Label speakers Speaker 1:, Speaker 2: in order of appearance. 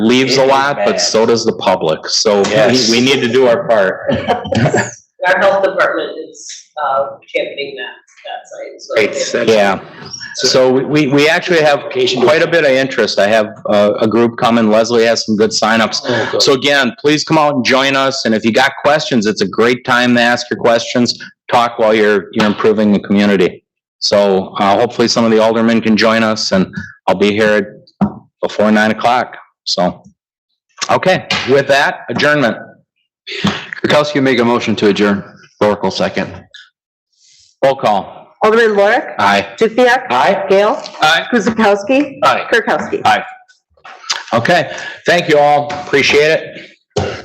Speaker 1: leaves
Speaker 2: It
Speaker 1: a
Speaker 2: is
Speaker 1: lot, but
Speaker 2: bad.
Speaker 1: so does the public. So
Speaker 2: Yes.
Speaker 1: we, we need to do our part.
Speaker 3: Our health department is, uh, championing that, that site, so.
Speaker 2: It's- that's-
Speaker 1: Yeah. So we- we, we actually have quite a bit of interest. I have uh, a, a group coming. Leslie has some good signups.
Speaker 2: Oh, good.
Speaker 1: So again, please come out and join us. And if you got questions, it's a great time to ask your questions. Talk while you're, you're improving the community. So, uh, hopefully some of the aldermen can join us and I'll be here before nine o'clock. So, okay, with that adjournment.
Speaker 4: Kirkowski make a motion to adjourn. Oracle second.
Speaker 1: Roll call.
Speaker 5: Alderman Lorik,
Speaker 1: Aye.
Speaker 5: Dukenyak.
Speaker 1: Aye.
Speaker 5: Gail.
Speaker 1: Aye.
Speaker 5: Guzekowski.
Speaker 1: Aye.
Speaker 5: Kirkowski.
Speaker 1: Okay, thank you all. Appreciate it.